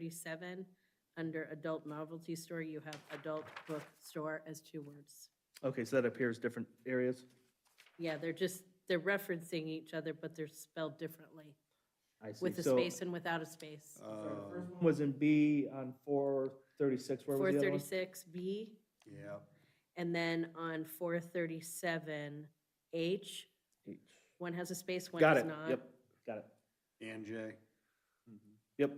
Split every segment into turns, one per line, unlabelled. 37, under adult novelty store, you have adult book store as two words.
Okay, so that appears different areas?
Yeah, they're just, they're referencing each other, but they're spelled differently,
I see.
with a
So-
space and without a space.
so the first one Was in B on four thirty-six, where was the other one?
436B,
Yeah,
and then on 437H,
H.
one has a space, one
Got
does
it,
not.
yep, got it.
and J.
Yep,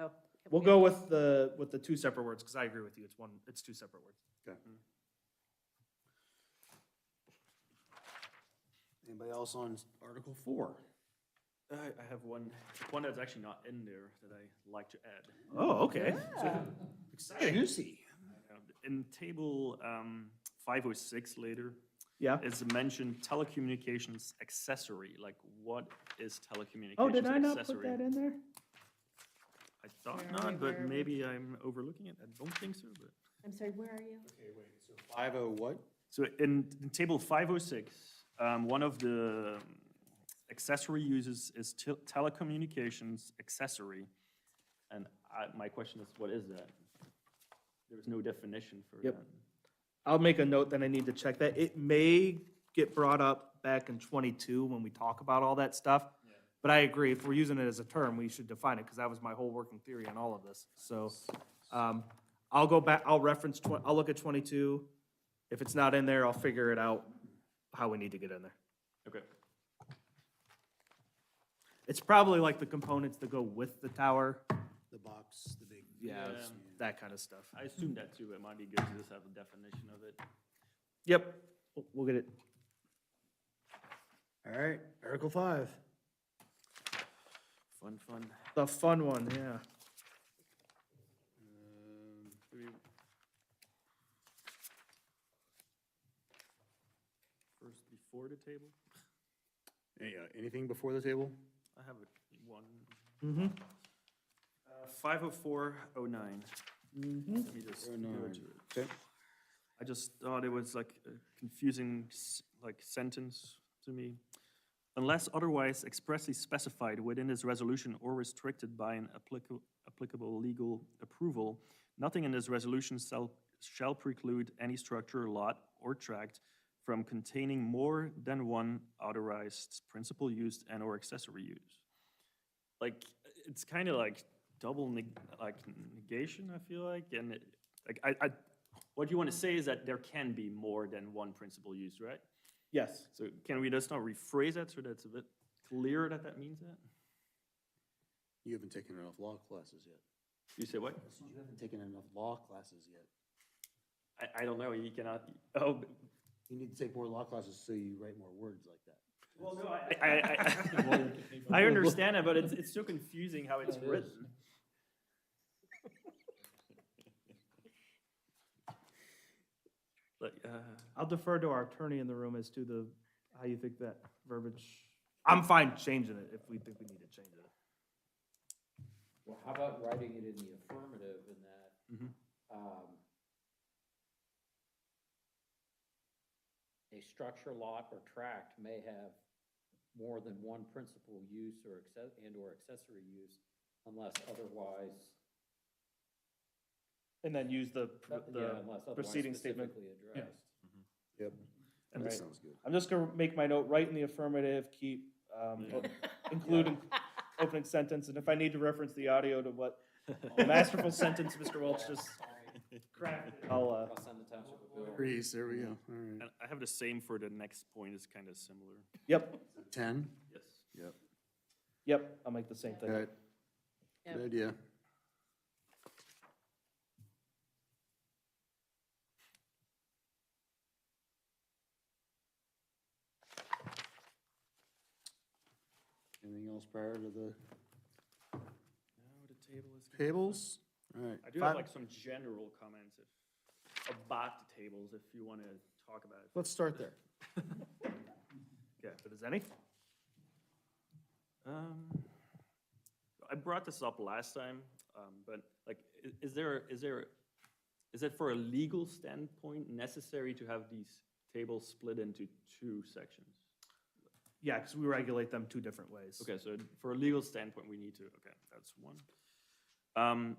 Oh.
we'll
okay.
go with the, with the two separate words, because I agree with you, it's one, it's two separate words.
Okay. Anybody else on Article Four?
I, I have one, one that's actually not in there that I like to add.
Oh, okay. Exciting.
Juicy.
Um, In table um, 506 later,
Yeah.
it's mentioned telecommunications accessory. Like, what is telecommunications
Oh, did I not put
accessory?
that in there?
I thought
Where are we,
not,
where are
but
we?
maybe I'm overlooking it. I don't think so. But
I'm sorry, where are you?
Okay, wait, so five oh what?
so in, in table 506, um, one of the um, accessory uses is tel- telecommunications accessory, and I, my question is, what is that? There is no definition for
Yep.
that.
I'll make a note that I need to check that. It may get brought up back in twenty-two when we talk about all that stuff. But I agree, if we're using it as a term, we should define it, because that was my whole working theory on all of this. So, um, I'll go back, I'll reference twen- I'll look at twenty-two. If it's not in there, I'll figure it out how we need to get in there.
Okay.
It's probably like the components that go with the tower,
The box, the big.
Yeah, it's
Yeah.
that kind of stuff.
I assume that too, it might be good to just have a definition of it.
Yep, we'll- we'll get it.
All right, Article Five.
Fun, fun.
The fun one, yeah.
Um,
Do we- First, before the table?
any- uh, Anything before the table?
I have a- one.
Mm-hmm.
Five oh four oh nine. Let me just go to it.
Okay.
I just thought it was like a confusing, s- like sentence to me. Unless otherwise expressly specified within this resolution or restricted by an applicable, applicable legal approval, nothing in this resolution shall, shall preclude any structure, lot, or tract from containing more than one authorized principal used and/or accessory use. Like, it's kind of like double neg, like negation, I feel like, and it- like, I, I, what you want to say is that there can be more than one principal use, right?
Yes.
So can we just not rephrase that so that's a bit clearer that that means that?
You haven't taken enough law classes yet.
You say what?
I said, You haven't taken enough law classes yet.
I, I don't know, you cannot, oh. b-
You need to take more law classes so you write more words like that.
Well, no, I. I, I, I understand it, but it's, it's so confusing how it's written. Like, uh,
I'll defer to our attorney in the room as to the, how you think that verbiage. I'm fine changing it if we think we need to change it.
Well, how about writing it in the affirmative in that,
Mm-hmm.
um, a structure, lot, or tract may have more than one principal use or acce- and/or accessory use unless otherwise,
And then use the, pr- the,
yeah, unless otherwise
preceding statement.
specifically addressed.
Yep.
and
That
right.
sounds good.
I'm just gonna make my note right in the affirmative, keep, um, o- include an opening sentence, and if I need to reference the audio to what the masterful sentence Mr. Welch just crafted, I'll, uh,
I'll send the township a bill.
Grease, there we go, all right.
and I have the same for the next point, it's kind of similar.
yep,
Ten?
Yes.
Yep.
yep, I'll make the same thing.
Good.
Yep.
Good idea. Anything else prior to the
Now the table is. gonna-
tables? All right.
I do have like some general comments if, about the tables, if you want to talk about it.
Let's start there.
Yeah, if there's any?
Um, I brought this up last time, um, but like, i- is there, is there, is it for a legal standpoint necessary to have these tables split into two sections?
Yeah, because we regulate them two different ways.
Okay, so for a legal standpoint, we need to, okay, that's one. Um,